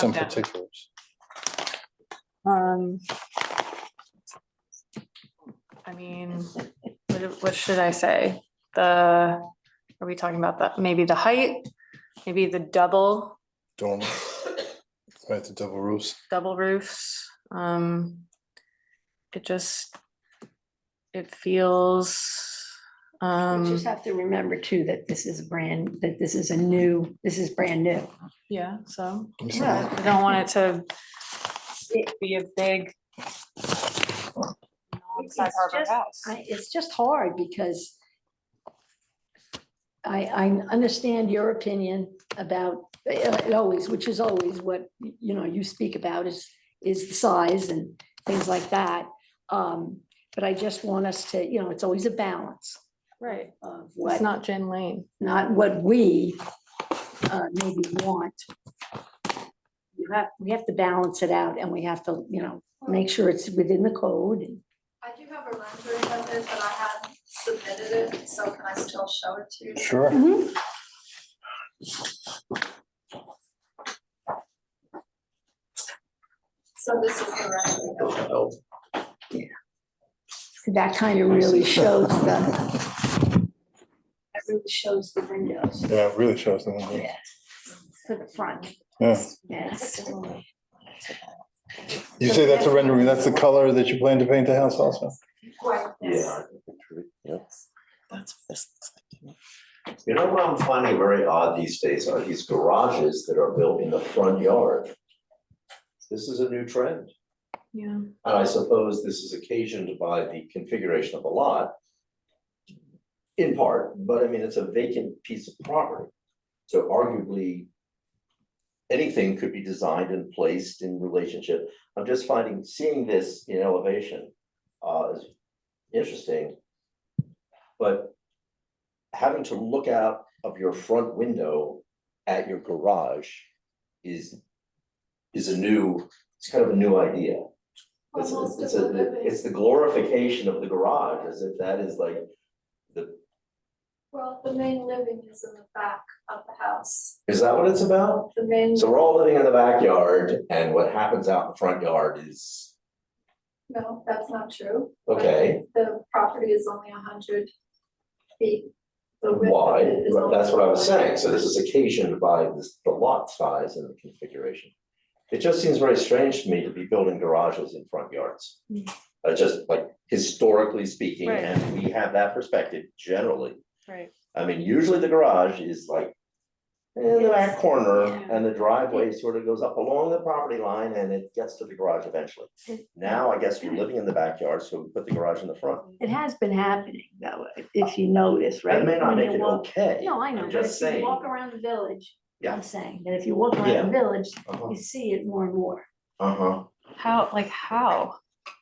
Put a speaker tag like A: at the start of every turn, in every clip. A: some
B: Okay.
A: particulars.
B: Um. I mean, what, what should I say? The, are we talking about the, maybe the height? Maybe the double,
A: Dorm. Right, the double roofs.
B: double roofs, um. It just. It feels,
C: You
B: um,
C: just have to remember too, that this is brand, that this is a new, this is brand new.
B: yeah, so,
A: I'm
C: Well,
A: sorry.
B: I don't want it to. Be a big. Sag Harbor
C: just-
B: house.
C: I, it's just hard because I, I understand your opinion about, uh, it always, which is always what, you know, you speak about is, is the size and things like that. Um, but I just want us to, you know, it's always a balance
B: Right,
C: of
B: it's
C: what,
B: not Gin Lane.
C: not what we uh, maybe want. You have, we have to balance it out and we have to, you know, make sure it's within the code. and-
D: I do have a rendering of it, but I hadn't submitted it, so can I still show it to you?
A: Sure.
D: So this is the rendering. of it.
C: So That kind of really shows the, that really shows the windows
A: Yeah, it really shows them. doesn't it?
C: to the front,
A: Yeah.
C: yes.
A: You say that's a rendering, that's the color that you plan to paint the house also?
D: Quite nice.
E: That's what this looks like.
F: You know what I'm finding very odd these days are these garages that are built in the front yard. This is a new trend,
B: Yeah.
F: and I suppose this is occasioned by the configuration of the lot. In part, but I mean, it's a vacant piece of property, so arguably. Anything could be designed and placed in relationship, I'm just finding, seeing this in elevation, uh, is interesting. But having to look out of your front window at your garage is, is a new, it's kind of a new idea. It's,
D: Well, most
F: it's,
D: of the
F: a-
D: living-
F: it's the glorification of the garage, as if that is like the,
D: Well, the main living is in the back of the house.
F: is that what it's about?
D: The main,
F: So we're all living in the backyard and what happens out in the front yard is,
D: no, that's not true.
F: okay,
D: The property is only a hundred feet. The width of
F: why?
D: it is
F: Well,
D: only
F: That's what I was
D: 100.
F: saying, so this is occasioned by this, the lot size and the configuration. It just seems very strange to me to be building garages in front yards.
D: Hmm.
B: Mm.
F: Uh, just like historically speaking,
B: Right.
F: and we have that perspective generally.
B: Right.
F: I mean, usually the garage is like in the back corner
B: Yeah.
F: and the driveway sort of goes up along the property line and it gets to the garage eventually.
C: Mm.
F: Now, I guess we're living in the backyard, so we put the garage in the front.
C: It has been happening though, if you notice, right?
F: That may not
C: When you
F: make it
C: walk-
F: okay.
C: No, I know,
F: I'm
C: but if
F: just
C: you
F: saying,
C: walk around the village,
F: Yeah.
C: I'm saying that if you walk around the village, you see it more and more.
F: uh-huh,
B: How, like, how?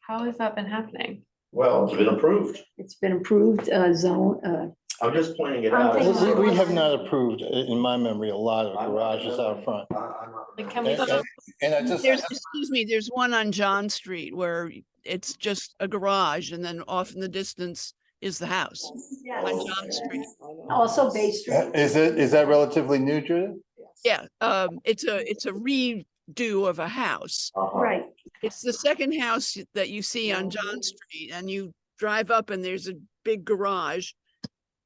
B: How has that been happening?
F: well, it's been approved.
C: It's been improved uh, zone, uh,
F: I'm just pointing it
C: I'm
F: out.
C: thinking-
A: We, we have not approved, i- in my memory, a lot of garages out front.
F: I- I'm not
B: Like, can we
A: And
B: go
E: Okay.
A: and- and I just,
E: There's, excuse me, there's one on John Street where it's just a garage and then off in the distance is the house
C: yeah,
E: on
F: Oh,
E: John Street.
C: also Bay Street.
A: Uh, is it, is that relatively new, Judith?
E: Yeah, um, it's a, it's a redo of a house.
F: Uh-huh.
C: Right,
E: It's the second house y- that you see on John Street and you drive up and there's a big garage.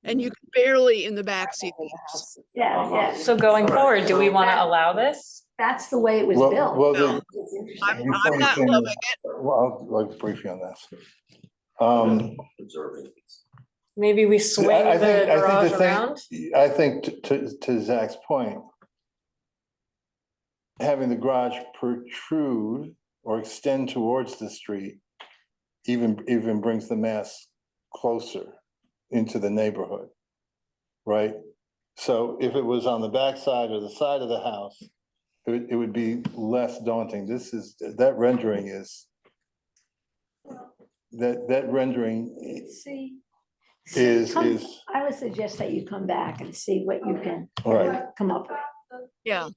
E: And you can barely in the back see the house.
C: yeah,
F: Uh-huh.
C: yeah.
B: So going
F: Alright,
B: forward, do we
F: so-
B: want to allow this?
C: That's the way it was
A: Well,
C: built.
A: well,
E: No.
A: the-
C: It's interesting.
E: I'm,
A: Before
E: I'm
A: you
E: not
A: can-
E: loving it.
A: well, I'll, I'll brief you on that. Um,
F: Observing.
B: Maybe we swing
A: I think-
B: the
A: I think the
B: garage
A: thing-
B: around?
A: I think t- to, to Zach's point, having the garage protrude or extend towards the street even, even brings the mass closer into the neighborhood, right? So if it was on the backside or the side of the house, it would, it would be less daunting. This is, that rendering is, that, that rendering
C: See.
A: is,
C: Come-
A: is,
C: I would suggest that you come back and see what you can
A: all right.
C: come up with.
D: The-
E: Yeah.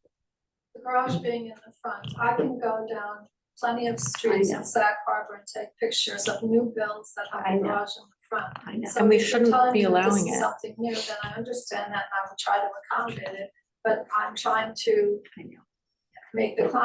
D: The garage being in the front, I can go down plenty of streets
C: know.
D: in Sag Harbor and take pictures of new builds that have
C: I
D: a
C: know.
D: garage in the front.
C: I know.
D: So
B: And we
D: if you're
B: shouldn't
D: telling
B: be
D: me this
B: allowing
D: is
B: it.
D: Something new, then I understand that and I will try to accommodate it, but I'm trying to
C: I know.
D: make the client